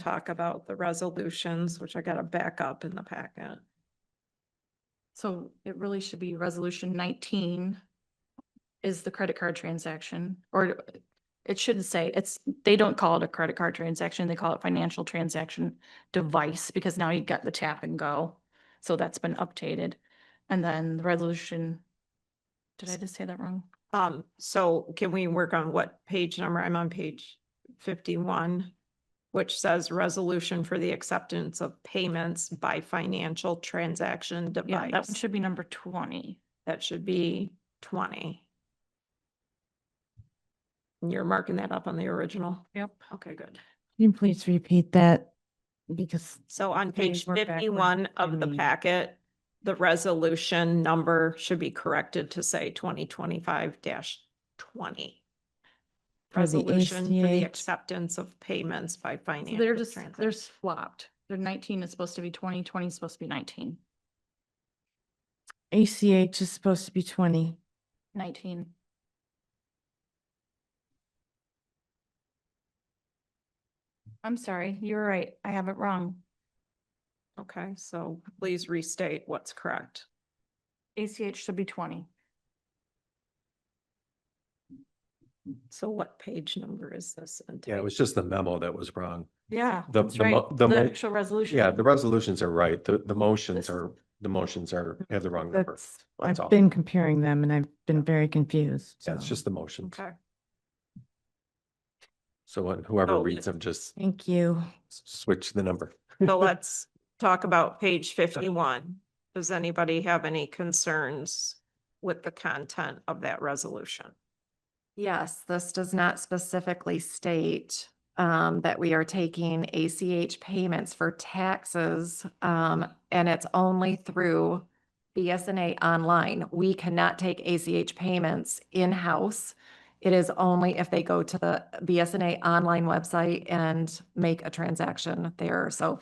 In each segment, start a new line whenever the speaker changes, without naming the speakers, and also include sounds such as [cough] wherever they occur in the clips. talk about the resolutions, which I gotta back up in the packet.
So it really should be resolution nineteen is the credit card transaction, or it shouldn't say, it's, they don't call it a credit card transaction, they call it financial transaction device, because now you've got the tap and go. So that's been updated. And then the resolution, did I just say that wrong?
Um, so can we work on what page number? I'm on page fifty-one, which says resolution for the acceptance of payments by financial transaction
Yeah, that one
device.
should be number twenty.
That should be twenty. And You're marking that up on the original?
Yep.
Okay, good.
Can you please repeat that? Because
So on
Okay,
page
we're backwards
fifty-one of the
to me.
packet, the resolution number should be corrected to say twenty twenty-five twenty.
For the
Resolution for the
ACH.
acceptance of payments by
So They're
financial
just, they're
transactions.
swapped. They're nineteen is supposed to be twenty. Twenty is supposed to be nineteen.
ACH is supposed to be twenty.
Nineteen. I'm sorry, you're right. I have it wrong.
Okay, so please restate what's correct.
ACH should be twenty.
So what page number is this? in
Yeah, it
type?
was just the memo that was wrong.
Yeah.
The-
that's
the
right.
mo- the
The
mo-
actual resolution.
Yeah, the resolutions are right. The, the motions
This-
are, the motions are, have the wrong number.
That's,
That's all.
I've been comparing them and I've been very confused.
Yeah, it's
so
just the motions.
Okay,
So when- whoever
Oh,
reads them, just
Thank you.
s- switch the number.
so let's talk about page fifty-one. Does anybody have any concerns with the content of that resolution?
Yes, this does not specifically state um, that we are taking ACH payments for taxes. um, And it's only through BSNA online. We cannot take ACH payments in-house. It is only if they go to the BSNA online website and make a transaction there. So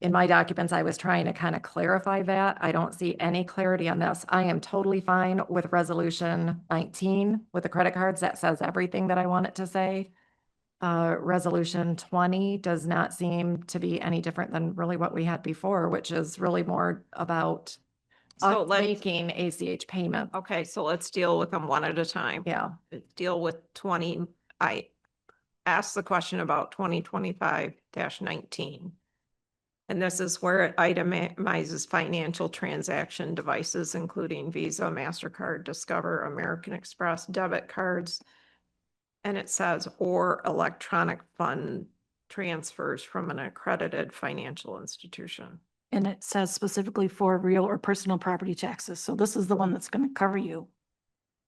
in my documents, I was trying to kind of clarify that. I don't see any clarity on this. I am totally fine with resolution nineteen with the credit cards. That says everything that I want it to say. Uh, resolution twenty does not seem to be any different than really what we had before, which is really more about
So
us
let's,
making ACH payment.
okay, so let's deal with them one at a time.
Yeah.
deal with twenty, I asked the question about twenty twenty-five nineteen. And this is where it itemizes financial transaction devices, including Visa, MasterCard, Discover, American Express, debit cards. And it says, or electronic fund transfers from an accredited financial institution.
And it says specifically for real or personal property taxes. So this is the one that's gonna cover you.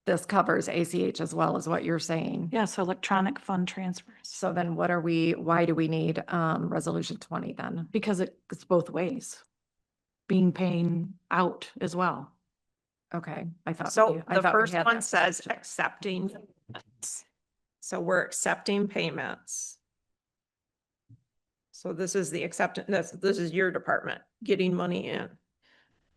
This covers ACH as well as what you're saying.
Yeah, so electronic fund transfers.
So then what are we, why do we need um resolution twenty then?
Because it- it's both ways. Being paying out as well.
Okay, I thought.
So
we- I
the
thought we
first
had
one
that
says
section.
accepting. payments. So we're accepting payments. So this is the acceptance, this, this is your department, getting money in,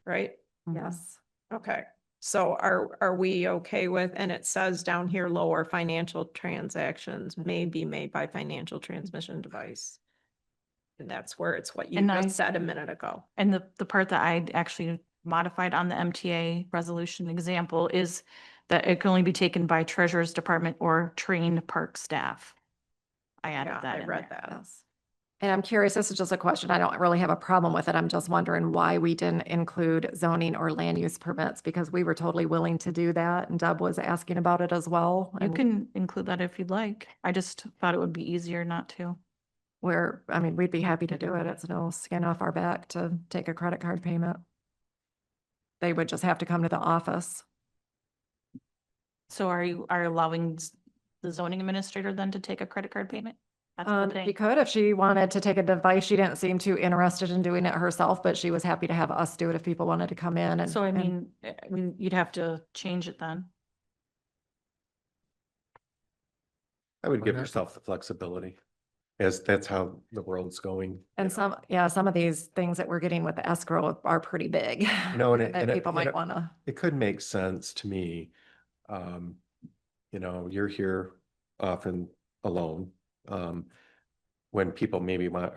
right?
Yes,
Okay, so are, are we okay with, and it says down here lower, financial transactions may be made by financial transmission device. And that's where it's what you
And I-
just said a minute ago.
And the, the part that I actually modified on the MTA resolution example is that it can only be taken by treasurer's department or trained park staff. I added
Yeah,
that
I
in
read
there.
that.
yes. And I'm curious, this is just a question. I don't really have a problem with it. I'm just wondering why we didn't include zoning or land use permits because we were totally willing to do that and Deb was asking about it as well.
You
and
can include that if you'd like. I just thought it would be easier not to.
We're, I mean, we'd be happy to do it. It's no skin off our back to take a credit card payment. They would just have to come to the office.
So are you, are allowing z- the zoning administrator then to take a credit card payment? That's the
Um,
thing.
she could if she wanted to take a device. She didn't seem too interested in doing it herself, but she was happy to have us do it if people wanted to come in and.
So I
and-
mean, I I mean, you'd have to change it then.
I would give yourself the flexibility. As that's how the world's going. you know.
And some, yeah, some of these things that we're getting with the escrow are pretty big.
No, and it-
[laughs] That
and it-
people
and
might
it-
wanna,
it could make sense to me. Um, you know, you're here often alone. Um, when people maybe want,